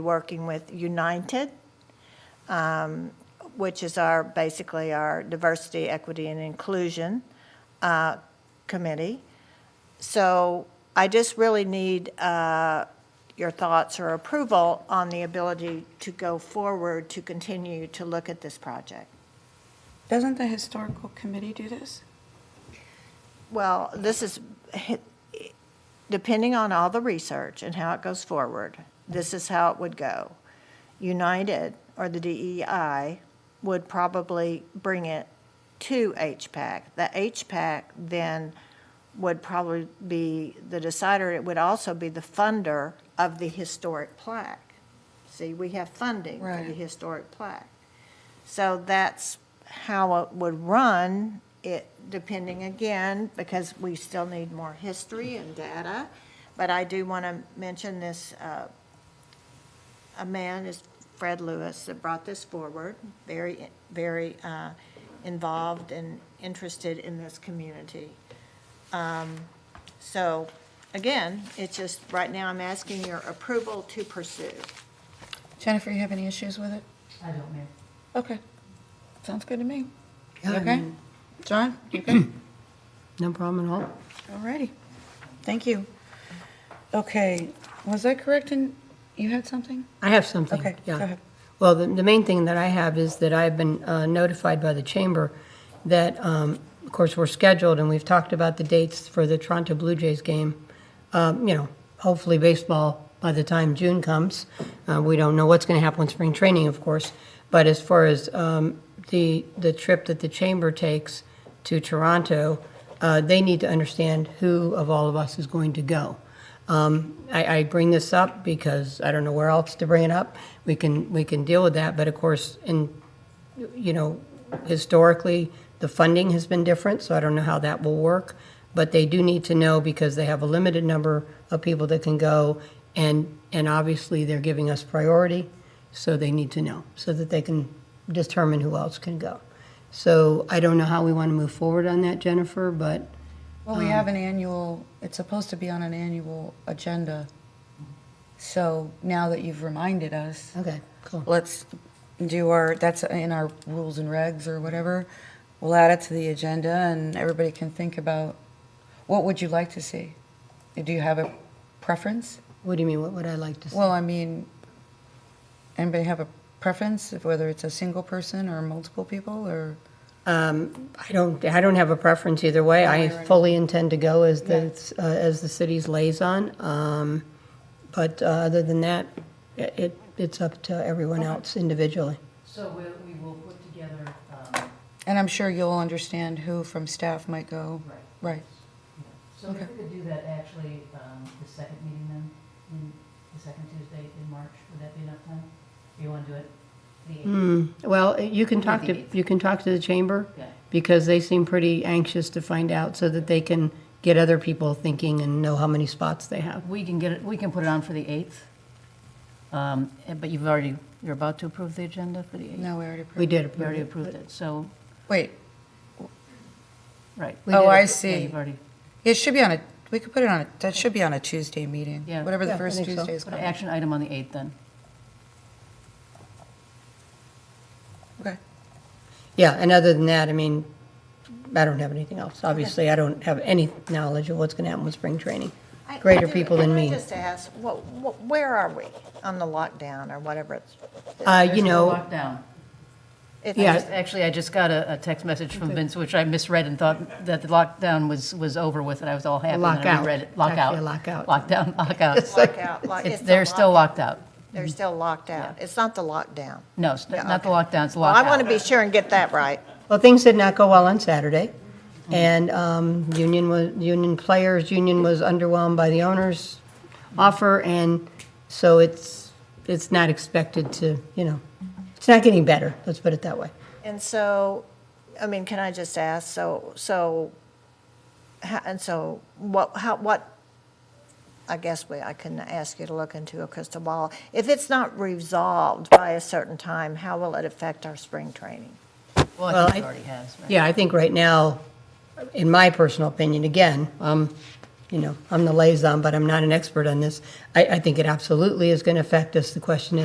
working with United, um, which is our, basically our Diversity, Equity, and Inclusion uh, Committee. So I just really need uh, your thoughts or approval on the ability to go forward to continue to look at this project. Doesn't the historical committee do this? Well, this is, depending on all the research and how it goes forward, this is how it would go. United, or the DEI, would probably bring it to HPAC. The HPAC then would probably be the decider, it would also be the funder of the historic plaque. See, we have funding for the Right. historic plaque. So that's how it would run, it, depending again, because we still need more history and data. But I do want to mention this, uh, a man is Fred Lewis that brought this forward, very, very uh, involved and interested in this community. Um, So again, it's just, right now, I'm asking your approval to pursue. Jennifer, you have any issues with it? I don't know. Okay. Sounds good to me. Yeah, I Okay? mean- John, you good? No problem at all. Alrighty. Thank you. Okay, was I correct in, you had something? I have something. Okay, yeah. go ahead. Well, the, the main thing that I have is that I've been uh, notified by the chamber that, um, of course, we're scheduled and we've talked about the dates for the Toronto Blue Jays game. Um, you know, hopefully baseball by the time June comes. Uh, we don't know what's going to happen with spring training, of course. But as far as um, the the trip that the chamber takes to Toronto, uh, they need to understand who of all of us is going to go. Um, I, I bring this up because I don't know where else to bring it up. We can, we can deal with that, but of course, in, you know, historically, the funding has been different, so I don't know how that will work. But they do need to know because they have a limited number of people that can go, and, and obviously, they're giving us priority, so they need to know, so that they can determine who else can go. So I don't know how we want to move forward on that, Jennifer, but Well, we have an annual, it's supposed to be on an annual agenda. So now that you've reminded us, Okay, cool. let's do our, that's in our rules and regs or whatever. We'll add it to the agenda and everybody can think about, what would you like to see? Do you have a preference? What do you mean, what would I like to see? Well, I mean, anybody have a preference of whether it's a single person or multiple people or? Um, I don't, I don't have a preference either way. I fully intend to go as the, uh, as the city's liaison. Um, But uh, other than that, i- it, it's up to everyone else individually. So we, we will put together, um, And I'm sure you'll understand who from staff might go. right. Right. So if Okay. we could do that actually, um, the second meeting then, in, the second Tuesday in March, would that be enough time? Or you wanna do it the Mm. eighth? Hmm, Well, you can talk to, you can talk to the chamber Okay, because they seem pretty anxious to find out so that they can get other people thinking and know how many spots they have. We can get it, we can put it on for the 8th, Um, eh, but you've already, you're about to approve the agenda for the 8th? No, we already We approved. did You approve already it. approved it, so, Wait, right. We Oh, did I appro- yeah, Yeah, see. you've already, it should be on a, we could put it on, a that should be on a Tuesday meeting. Yeah. Whatever Yeah, the I first think so. Tuesday is put an called. action item on the 8th then. Okay. Yeah, and other than that, I mean, I don't have anything else. Obviously, I don't have any knowledge of what's going to happen with spring training. I- Greater I- people than me. Can I just ask, wha- wha- where are we on the lockdown or whatever it's? Uh, you There's no know, Lockdown. it's- I Yeah. just- Actually, I just got a, a text message from Vince, which I misread and thought that the lockdown was, was over with, and I was all happy. and then I Lockout. reread it. It's Lockout. actually a lockout. Lockdown, lockout. Lockout, like, It's, it's a they're still lockout. locked out. They're still locked out. It's not the lockdown. No, it's Yeah, not the lockdown, it's Well, lockout. I want to be sure and get that right. well, things did not go well on Saturday. Mm. And um, union was, union players, union was underwhelmed by the owner's offer. And so it's, it's not expected to, you know, it's not getting better, let's put it that way. And so, I mean, can I just ask, so, so, ha- and so, what, how, what, I guess we, I couldn't ask you to look into a crystal ball. If it's not resolved by a certain time, how will it affect our spring training? Well, Well, I think I- it already has, right? Yeah, I think right now, in my personal opinion, again, um, you know, I'm the liaison, but I'm not an expert on this. I, I think it absolutely is going to affect us. The question is.